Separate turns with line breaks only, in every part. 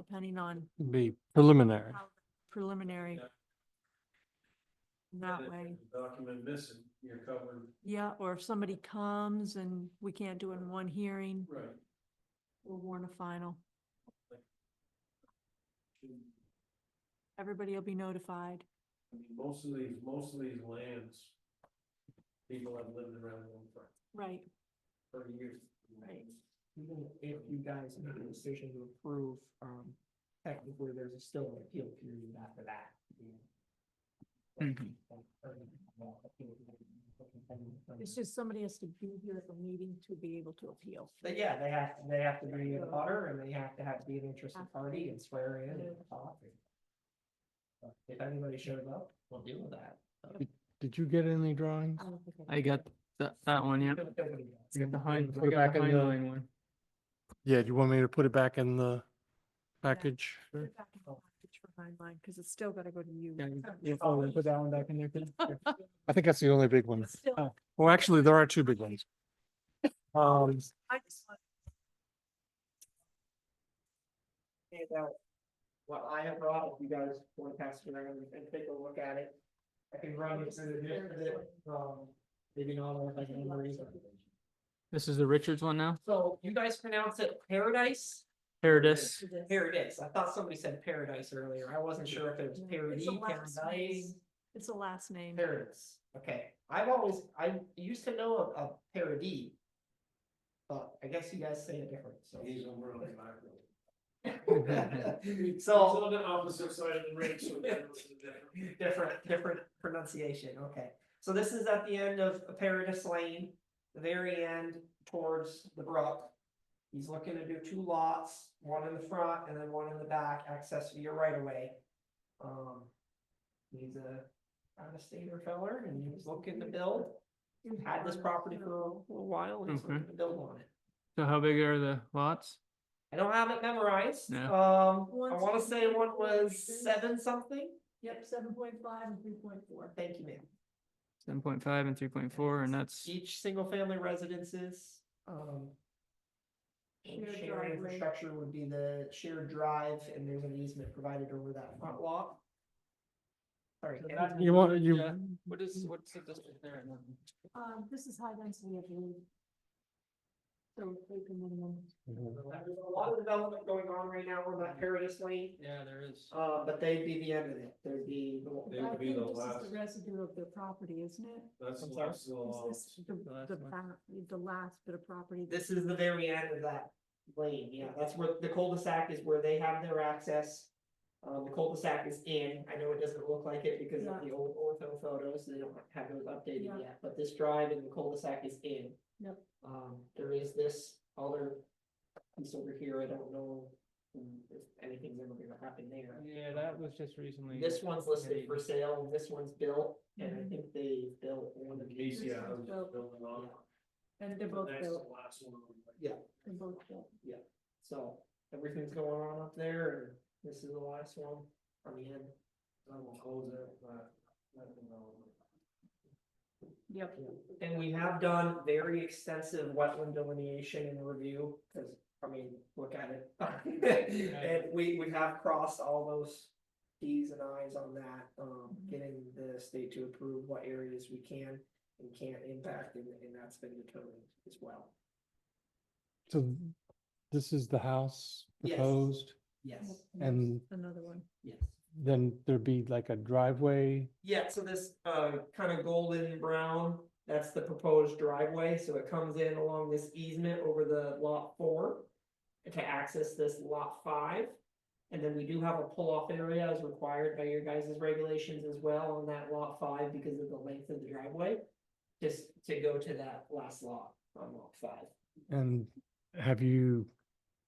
depending on
be preliminary.
how preliminary. That way,
Document missing, you're covered.
yeah, or if somebody comes and we can't do it in one hearing,
Right.
we'll warn a final.
I mean,
Everybody will be notified.
most of these, most of these lands, people have lived around them for,
Right,
for years.
Right.
Even if you guys make a decision to approve, um, technically, there's a still an appeal period after that.
it's
Mm-hmm.
just somebody has to be here at the meeting to be able to appeal.
But yeah, they have, they have to be in the butter and they have to have, be an interested party and swear in and talk. If anybody shows up, we'll deal with that.
Did you get any drawings?
Oh.
I got that, that one, yeah. I got the hind, I
Put it
got
back in
the
the-
hind one.
Yeah, do you want me to put it back in the package?
Put it back in the package for Heinlein, Cause it's still gotta go to you.
Yeah, you- you probably put that one back in there too.
I think that's the only big one.
It's Still,
Well, actually, there are two big ones. Um,
I just want
About what I have brought, if you guys want to pass it around and take a look at it. I can run it through the, the, um, maybe not all of like in one reason.
This is the Richards one now,
So you guys pronounce it paradise?
Paradis.
to this.
Paradise. I thought somebody said paradise earlier. I wasn't sure if it was
It's a
parody,
last
paradise.
name. It's the last name.
Paradise, okay. I've always, I used to know of, of parody. But I guess you guys say it different, so.
He's over on my road.
So,
It's on the opposite side of the range, so that's the difference.
different, different pronunciation, okay. So this is at the end of Paradise Lane, the very end towards the brook. He's looking to do two lots, one in the front and then one in the back, access via right away. Um, he's a, out of stater feller and he was looking to build,
Mm-hmm.
had this property for a little while, and he's
Okay.
looking to build on it.
So how big are the lots?
I don't have it memorized,
No.
um, I
One's
wanna say one
3.4,
was seven something,
Yep, seven point five and three point four.
thank you ma'am.
Seven point five and three point four, and that's,
each single family residences, um. and
Shared
Shared
driveway.
infrastructure would be the shared drive and there's an easement provided over that front lot. Sorry.
So
and
that's-
I-
you want, you,
Yeah. what is, what's the district there?
Um, this is high density, I believe. So it's like a minimum.
There's a lot of development going on right now on that Paradise Lane,
Yeah, there is.
uh, but they'd be the end of it, there'd be.
They
I
would be
think
the
this
last,
is the residue of the property, isn't it?
that's the
I'm sorry?
last of Oh, the
Is
lots.
this the,
last
the
one.
back, the last bit of property?
This is the very end of that lane, yeah, that's where the cul-de-sac is where they have their access. Um, the cul-de-sac is in, I know it doesn't look like it because of the old ortho photos, they don't have those
Yeah.
updated yet, but this drive and the cul-de-sac is in.
Yep.
Um, there is this other piece over here, I don't know mm, if anything's ever gonna happen there.
Yeah, that was just recently.
This one's listed for sale, and this one's built, and I
Mhm.
think they built one of these.
Casey,
This
I
uh,
one's
was
built.
building on.
And they're both
That's the
built,
last one.
they're both built.
So everything's going on up there and this is the last one on the end.
I will close it, but. nothing else.
Yep.
And we have done very extensive wetland delineation and review, because, I mean, look at it. And we, we have crossed all those Ts and Is on that, um, getting the state to approve what areas we can and can't impact, and, and that's been determined as well.
so this is the house
Yes.
proposed,
Yes,
and
Another one.
yes.
then there'd be like a driveway.
Yeah, so this uh kind of golden brown, that's the proposed driveway, so it comes in along this easement over the lot four. To access this lot five, and then we do have a pull-off area as required by your guys' regulations as well on that lot five because of the length of the driveway. Just to go to that last lot on lot five.
And have you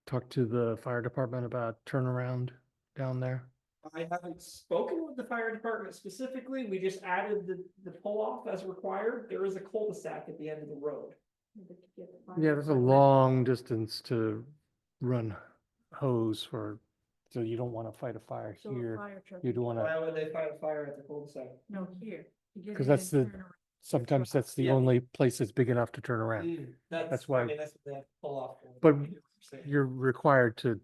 talked to the fire department about turnaround down there?
I haven't spoken with the fire department specifically, we just added the the pull-off as required, there is a cul-de-sac at the end of the road.
Yeah, that's a long distance to run hose for, so you don't want to fight a fire
So a
here.
fire truck,
You'd want to,
Why would they fight a fire at the cul-de-sac?
no, here. to get
'Cause
in
that's
and
the-
turn around.
sometimes that's the
Yeah.
only place that's big enough to turn around.
Mm, That's,
That's
I
why-
mean, that's what they have to pull off. for.
But You're required to